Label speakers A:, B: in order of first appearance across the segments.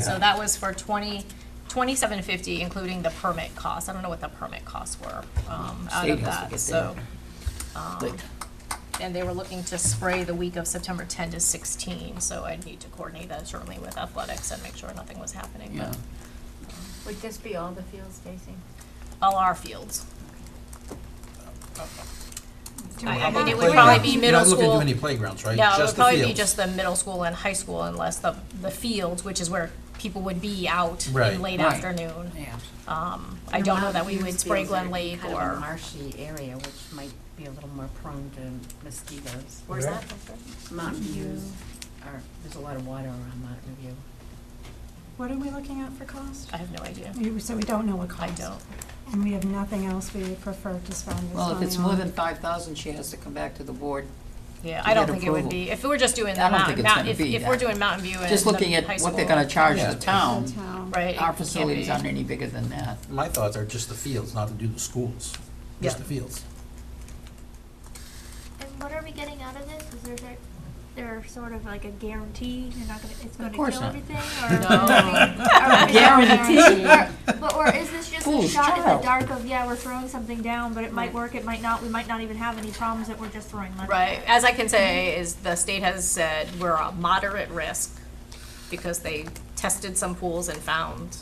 A: So that was for twenty, twenty-seven fifty, including the permit costs. I don't know what the permit costs were, um, out
B: State
A: of
B: has to
A: that,
B: get
A: so. um,
B: Good.
A: And they were looking to spray the week of September ten to sixteen, so I'd need to coordinate that certainly with athletics and make sure nothing was happening,
B: Yeah.
A: but
C: Would this be all the fields facing?
A: all our fields. I I mean, it would
D: Playground.
A: probably be
D: You're
A: middle
D: not looking to do any
A: school.
D: playgrounds, right?
A: No, it
D: Just
A: would
D: the
A: probably be
D: fields.
A: just the middle school and high school unless the, the fields, which is where people would be out
D: Right.
A: in late
B: Right.
A: afternoon.
B: Yeah.
A: Um, I don't know that we would spray Glen Lake
C: Kind of a
A: or,
C: marshy area, which might be a little more prone to mosquitoes.
A: where's
E: Yeah.
A: that?
C: Mountain View, or, there's a lot of water around Mountain View.
F: What are we looking at for cost?
A: I have no idea.
F: We- So we don't know what
A: I
F: cost.
A: don't.
F: And we have nothing else we would prefer to spend this money on.
B: Well, if it's more than five thousand, she has to come back to the board.
A: Yeah,
B: To
A: I don't
B: get
A: think it would
B: approval.
A: be, if we were just doing
B: I
A: the
B: don't think
A: mountain,
B: it's
A: Mount-
B: gonna
A: if,
B: be
A: if we're
B: that.
A: doing Mountain View and
B: Just looking
A: the high
B: at
A: school.
B: what they're gonna charge
D: Yeah.
B: the town.
F: The town.
A: Right.
B: Our
A: it can't be.
B: facilities aren't any bigger than that.
D: My thoughts are just the fields, not to do the schools,
A: Yeah.
D: just the fields.
G: And what are we getting out of this? Is there, there, there sort of like a guarantee you're not gonna, it's gonna
B: course
G: kill
B: not.
G: everything?
A: No.
B: Guaranteed.
G: But, or is this just a
B: Fool's
G: shot in
B: child.
G: the dark of, yeah, we're throwing something down, but it might work, it might not, we might not even have any problems that we're just throwing money.
A: Right, as I can say, is the state has said we're a moderate risk because they tested some pools and found,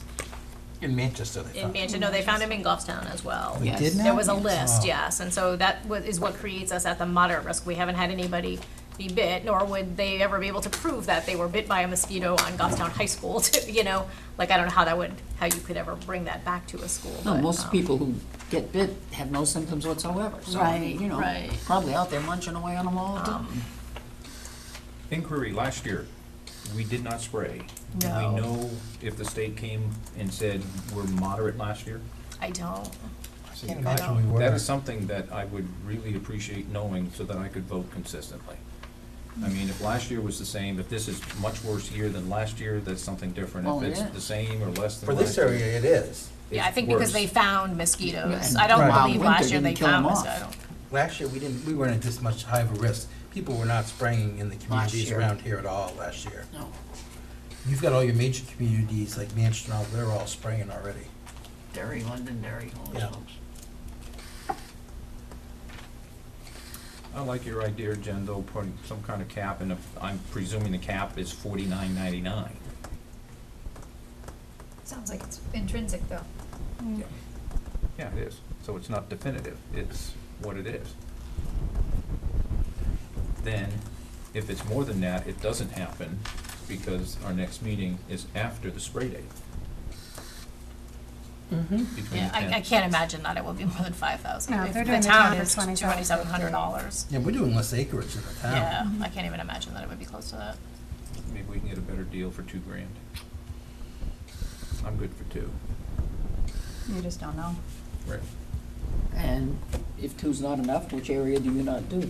D: In Manchester, they
A: in
D: found.
A: Manchester, no, they found them in Goffstown as well.
D: We
B: Yes.
D: did
A: There
D: not?
A: was a list,
D: Oh.
A: yes, and so that wa- is what creates us at the moderate risk. We haven't had anybody be bit, nor would they ever be able to prove that they were bit by a mosquito on Goffstown High School, to, you know, like, I don't know how that would, how you could ever bring that back to a school.
B: No,
A: but,
B: most
A: um,
B: people who get bit have no symptoms whatsoever, so, I mean, you know,
A: Right, Um, right.
B: probably out there munching away on them all the time.
E: Inquiry, last year, we did not spray. Do
A: No.
E: We know if the state came and said we're moderate last year.
A: I don't,
D: I can't imagine we
E: That
D: were.
E: is something that I would really appreciate knowing so that I could vote consistently. I mean, if last year was the same, if this is much worse here than last year, that's something different.
B: Oh,
E: If it's
B: yeah.
E: the same or less
D: For
E: than
D: this
E: last year.
D: area, it is.
A: yeah, I
E: it's
A: think because
E: worse.
A: they found mosquitoes.
B: and
A: I don't
D: Right.
A: believe
B: Wow, winter
A: last year they
B: didn't kill 'em
A: found
B: off.
A: mosquitoes, I don't.
D: Last year, we didn't, we weren't at this much high of a risk. People were not spraying in the communities
B: year.
D: around here at all last year.
B: No.
D: You've got all your major communities like Manchester, and all, they're all spraying already.
B: Derry, Londonderry, all those
D: Yeah.
B: folks.
E: I like your idea, Jen, though, putting some kind of cap, and if- I'm presuming the cap is forty-nine ninety-nine.
H: Sounds like it's intrinsic, though.
G: Mm.
E: Yeah, it is. So it's not definitive. It's what it is. Then, if it's more than that, it doesn't happen because our next meeting is after the spray date.
A: Mm-hmm.
E: Between the
A: Yeah, I, I
E: 10th.
A: can't imagine that it will be more than five thousand.
F: No, if they're doing
A: The
F: the
A: town
F: town for
A: is
F: $20,000,
A: twenty-seven hundred dollars.
D: Yeah, we're doing less acreage in the town.
A: Yeah, I can't even imagine that it would be close to that.
E: Maybe we can get a better deal for two grand. I'm good for two.
F: You just don't know.
E: Right.
B: And if two's not enough, which area do you not do?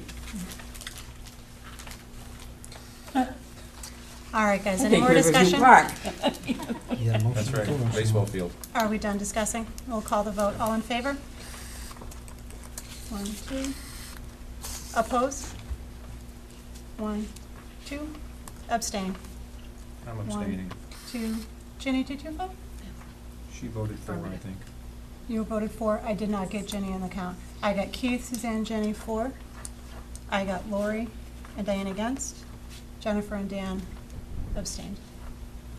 F: All right, guys, any
B: Big
F: more
B: Riverview
F: discussion?
B: Park.
D: Yeah, motion
E: That's
D: to close.
E: right, baseball field.
F: Are we done discussing? We'll call the vote. All in favor? One, two. Opposed? One, two. Abstain.
E: I'm
F: One.
E: abstaining.
F: Two. Ginny, did you vote?
E: She voted for, I think.
F: You voted for. I did not get Ginny in the count. I got Keith, Suzanne, Jenny, for. I got Lori and Diane against. Jennifer and Dan abstained.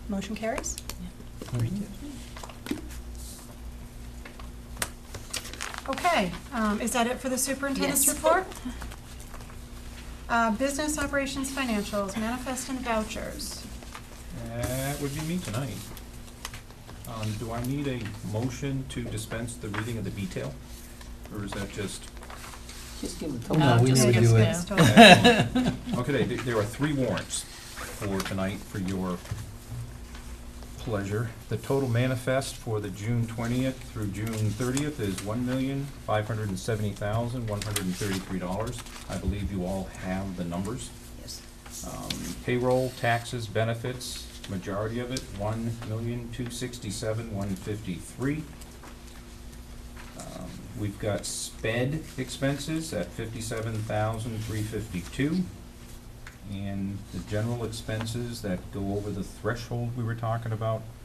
F: Motion carries. Okay, um, is that it for the superintendent's
B: Yes.
F: report? Uh, Business operations financials, manifest and vouchers.
E: That would be me tonight. Um, do I need a motion to dispense the reading of the detail? Or is that just?
B: Just give it to
D: No,
B: them.
D: we
A: just
D: would
A: gives
D: do
A: me
D: it.
A: a-
E: uh, Okay, th- there are three warrants for tonight for your pleasure. The total manifest for the June twentieth through June thirtieth is one million, five hundred and seventy thousand, one hundred and thirty-three dollars. I believe you all have the numbers.
B: Yes.
E: Um, Payroll, taxes, benefits, majority of it, one million, two sixty-seven, one fifty-three. Um, We've got sped expenses at fifty-seven thousand, three fifty-two. And the general expenses that go over the threshold we were talking about